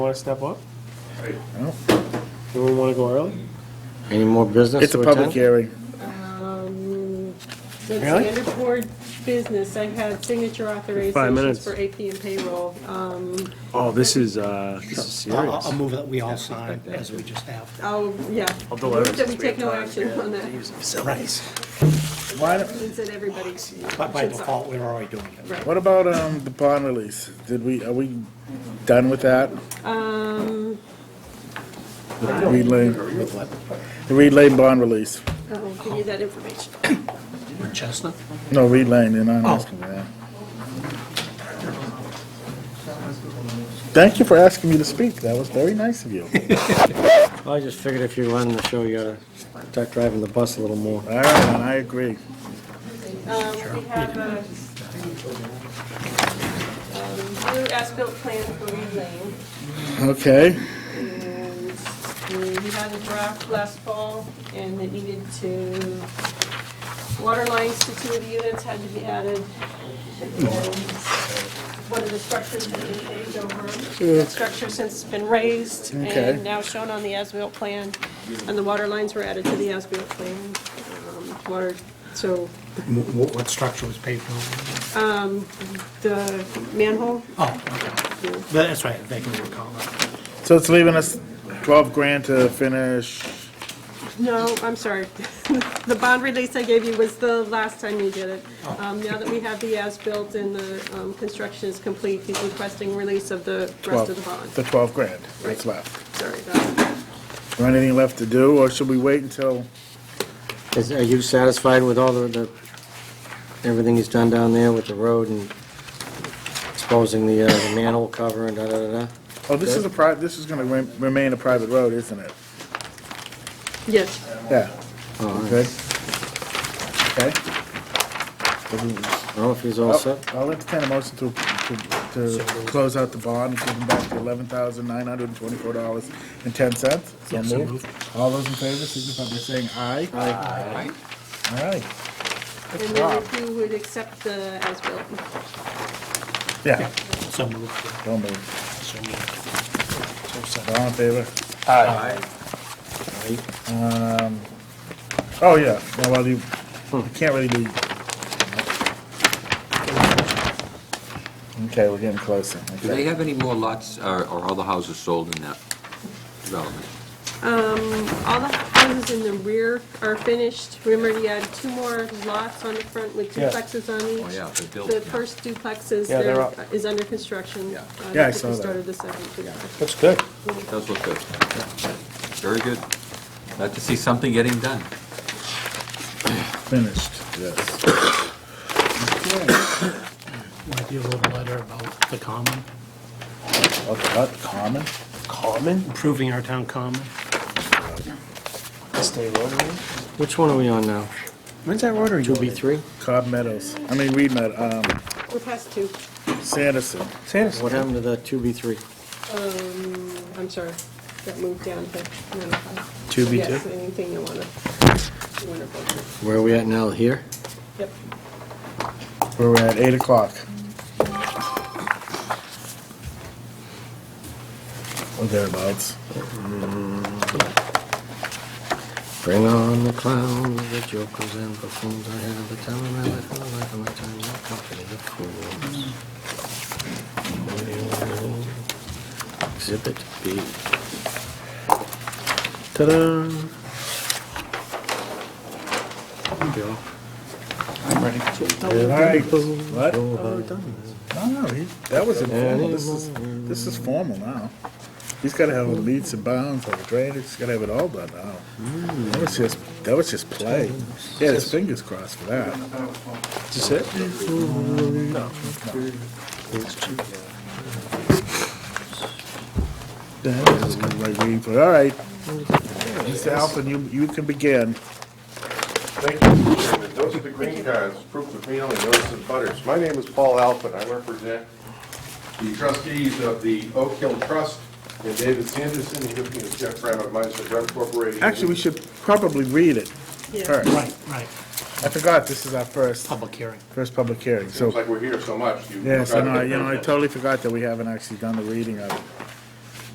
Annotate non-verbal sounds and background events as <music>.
Want to step up? No. Anyone want to go early? Any more business? It's a to public attend? hearing. Um, The Really? standard board business, I had signature Five authorizations minutes. for AP and payroll. Um, Oh, this is, uh, this is I'll I'll serious. move that we all sign as we just have. I'll, yeah. I'll deliver Move That we since we take have no time. action on that, Right. Why don't- means that everybody But by should sign. default, we're already doing it. Right. What about, um, the bond release? Did we, are we done with that? Um, The Reed Lane, the Reed Lane bond release. I'll oh, give you that information. Chestnut? No, Reed Lane, and I'm Oh. asking for that. Thank you for asking me to speak. That was very nice of you. I just figured if you're running the show, you gotta start driving the bus a little more. <laughs> All right, and I agree. Um, we have a, um, new as-built plan for Reed Lane. Okay, And we had a draft last fall, and it needed to, water lines to two of the units had to be added. and One of the structures had been paved over. That structure since been raised Okay. and now shown on the as-built plan, and the water lines were added to the as-built plan. Um, Water, so What, what structure was paved over? the manhole, Oh, okay. But That's right, they can recall that. so it's leaving us twelve grand to finish. No, I'm sorry. <laughs> The bond release I gave you was the last time you did it. Um, Now that we have the as-built and the um, construction is complete, he's requesting release of the rest of the bond. The twelve grand that's left. Sorry about that. Is there anything left to do, or should we wait until? Is, are you satisfied with all the, the, everything he's done down there with the road and exposing the, uh, the manhole cover and da-da-da-da? Oh, this is a pri, this is gonna re- remain a private road, isn't it? Yes, Yeah, Oh, all right. good. Okay, I don't know if he's all I'll set. I'll entertain a motion to, to, to close out the bond, and give them back the eleven thousand nine hundred and twenty-four dollars and ten cents. So Yeah, so moved. All those in favor, signify by saying aye. Aye. All right, and then if you would accept the as-built. yeah, So moved, don't move. yeah, so moved. All in favor? All right. Um, Oh, yeah, Now, well, you, you can't really do. Okay, we're getting closer. Do they have any more lots, or or all the houses sold in that development? All the houses in the rear are finished. Remember, you had two more lots on the front with Yeah. duplexes on each. Oh, yeah, they built, The yeah. first duplex is, Yeah, they're there- up. is under construction. Yeah. Uh, Yeah, I they saw that. Started the second duplex. That's good. Does look good. Very good. Glad to see something getting done. Finished, yes. Want to do a little letter about the common, Okay, not common? Common? improving our town common? Stay rolling. Which one are we on now? When's that rotary Two going B in? three? Cobb Meadows, I mean, Reed Meadows, um, We're past two. Sanderson. Sanderson. What happened to the two B three? I'm sorry, that moved down to number five. Two B two? Yes, anything you want to, you want to vote Where are we at now, here? on. Yep. We're at eight o'clock. Or thereabouts. Bring on the clown, the jokers and buffoons, I have the time of my life, and the life of my time, no company of fools. Exhibit B. Ta-da! All right. What? No, What? no, he- that was informal, this is, this is formal now. He's gotta have leads and bounds, like drainage, he's gotta have it all done now. That was just, that was just play. He had his fingers crossed for that. Is this it? Yeah, that was kind of like reading for, all right. Mr. Alphen, you, you can begin. Thank you, Mr. Chairman. Those are the green cards, proof of mailing, notice of butters. My name is Paul Alpert. I represent the trustees of the Oak Hill Trust and David Sanderson, he's with me as Jeff Brown of Meister Drug Corporation. Actually, we should probably read it Yeah. first. Right, right, I forgot this is our first, public hearing. first public hearing, Seems so, like we're here so much. you yes, I know, forgot I- you know, I the- totally forgot that we haven't actually done the reading of it.